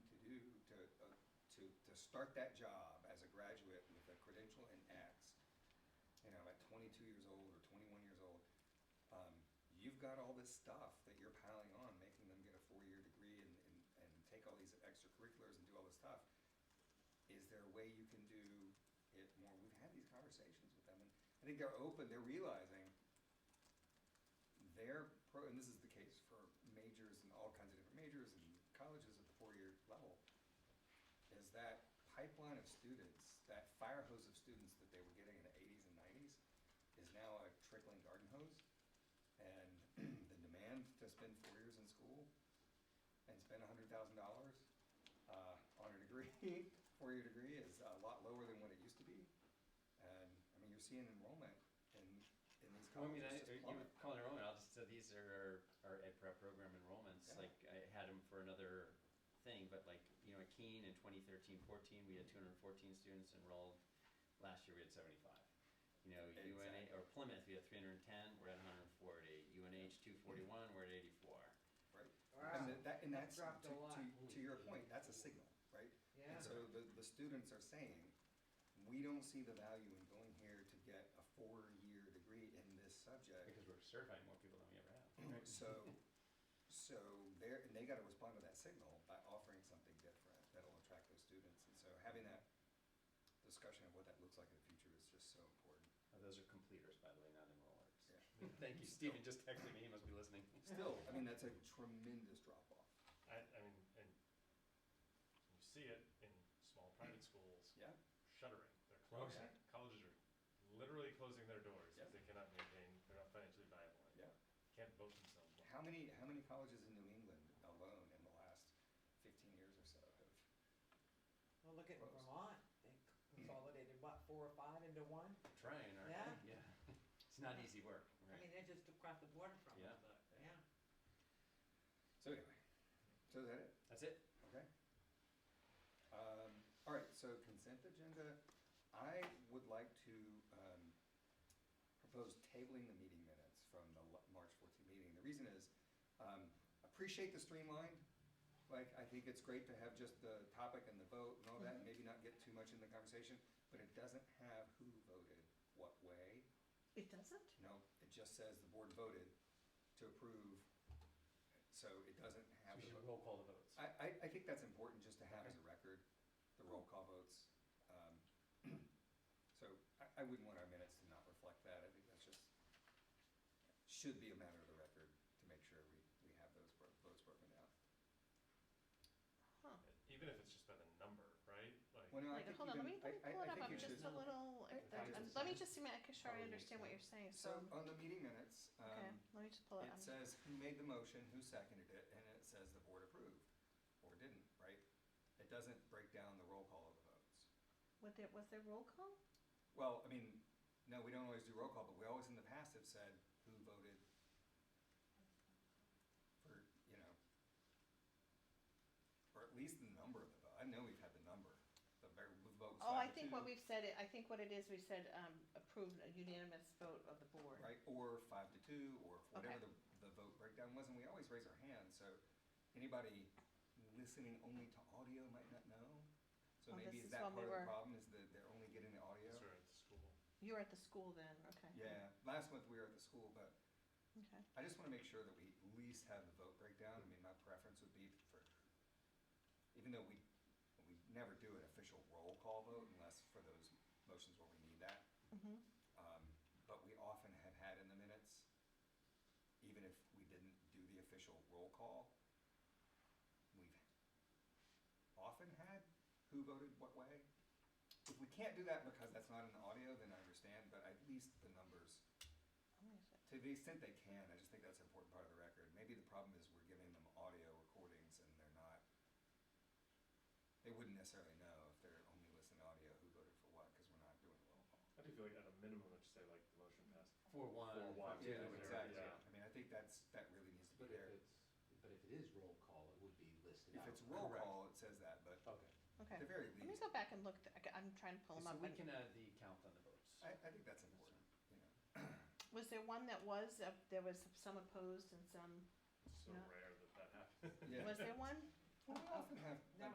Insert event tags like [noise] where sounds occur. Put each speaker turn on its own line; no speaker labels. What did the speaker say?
uh, start that job as a graduate with a credential in X, you know, at 22 years old or 21 years old, um, you've got all this stuff that you're piling on, making them get a four-year degree and, and, and take all these extracurriculars and do all this stuff. Is there a way you can do it more? We've had these conversations with them, and I think they're open, they're realizing their pro, and this is the case for majors and all kinds of different majors and colleges at the four-year level, is that pipeline of students, that fire hose of students that they were getting in the eighties and nineties, is now a trickling garden hose. And [clears throat] the demand to spend four years in school and spend hundred thousand dollars uh, on a degree, [laughs] four-year degree, is a lot lower than what it used to be. And, I mean, you're seeing enrollment in, in these
Well, I mean, I,
colleges just
you
plummet.
would call it enrollment, I'll just, so these are our, our ed prep program enrollments,
Yeah.
like, I had them for another thing, but like, you know, at Keene in 2013, 14, we had two hundred and fourteen students enrolled, last year we had seventy-five. You know,
Exactly.
UNH, or Plymouth, we had three hundred and ten, we're at hundred and forty, UNH two forty-one, we're at eighty-four.
Right.
Wow.
And that- that, and
That
that's,
dropped a lot.
to, to, to your point, that's a signal, right? And
Yeah.
so the, the students are saying, we don't see the value in going here to get a four-year degree in this subject.
Because we're certifying more people than we ever have.
So, so they're, and they gotta respond to that signal by offering something different that'll attract those students. And so having that discussion of what that looks like in the future is just so important.
Uh, Those are completers, by the way, not enrollers.
Yeah.
[laughs] Thank you, Stephen just texted me, he must be listening.
Still, I mean, that's a tremendous drop-off.
I, I mean, and you see it in small private schools
Yeah?
shuttering. They're closing.
Okay.
Colleges are literally closing their doors
Yeah.
because they cannot maintain, they're not financially viable.
Yeah.
Can't vote themselves.
How many, how many colleges in New England alone in the last fifteen years or so have
Well, look at
Close.
Vermont, they consolidated, what, four or five into one?
Trying, aren't
Yeah.
we? Yeah. It's not easy work,
I mean,
right?
they're just across the border from
Yeah.
us, yeah.
So anyway, so is that it?
That's it?
Okay. Um, all right, so consent agenda, I would like to, um, propose tabling the meeting minutes from the l- March fourteenth meeting. The reason is, um, appreciate the streamlined, like, I think it's great to have just the topic and the vote and all that, and
Mm-hmm.
maybe not get too much in the conversation, but it doesn't have who voted what way,
It doesn't?
No, it just says the board voted to approve, so it doesn't
So
have.
We
the
should
vote.
roll call the votes.
I, I, I think that's important just to have as a record, the roll call votes. Um, [clears throat] So I, I wouldn't want our minutes to not reflect that. I think that's just, should be a matter of the record to make sure we, we have those bro- votes broken down.
Huh.
Even if it's just by the number, right? Like,
Well, no, I
Wait,
think
hold
you
on, let
can-
me, let me
I- I-
pull
I
it up,
think
I'm
you
just a
should-
little,
I think
I'm-
it's-
let me just see, make sure I
Probably
understand what you're
makes
saying,
So
so,
on the meeting minutes,
okay,
um,
let me just pull it
It
up.
says who made the motion, who seconded it, and it says the board approved, or didn't, right? It doesn't break down the roll call of the votes.
Was there, was there roll call?
Well, I mean, no, we don't always do roll call, but we always in the past have said who voted for, you know, or at least the number of the vote. I know we've had the number, the very, the vote was
Oh,
five
I
to
think what
two,
we've said, it- I think what it is, we said, um, approved a unanimous vote of the board.
Right, or five to two, or whatever
Okay.
the, the vote breakdown was, and we always raise our hand, so anybody listening only to audio might not know. So
Oh,
maybe
this
is
is
that
when
part
we
of the
were-
problem, is that they're only getting the audio?
Sorry, the school.
You were at the school then, okay.
Yeah, last month we were at the school, but
Okay,
I just wanna make sure that we at least have the vote breakdown, I mean, my preference would be for, even though we, we never do an official roll call vote unless for those motions where we need that,
mm-hmm,
Um, But we often have had in the minutes, even if we didn't do the official roll call, we've often had who voted what way. If we can't do that because that's not in the audio, then I understand, but at least the numbers, to the extent they can, I just think that's an important part of the record. Maybe the problem is we're giving them audio recordings and they're not, they wouldn't necessarily know if they're only listening to audio who voted for what, because we're not doing a roll call.
I do feel like at a minimum, I'd say like the motion passed.
Four one.
Four one,
Yeah,
Yeah.
exactly.
Yeah.
I mean, I think that's, that really needs to be
But if
there.
it's, but if it is roll call, it would be listed out.
If it's roll call, it says that, but
Okay.
okay.
at the very
Let me
least,
go back and look, th- I ca- I'm trying to pull
So
them up.
we can
and-
add the count on the votes.
I, I think that's important, you know.
Was there one that was, uh, there was some opposed and some,
It's so
No.
rare that that happens.
Yeah.
was there one?
Well, We often have,
No,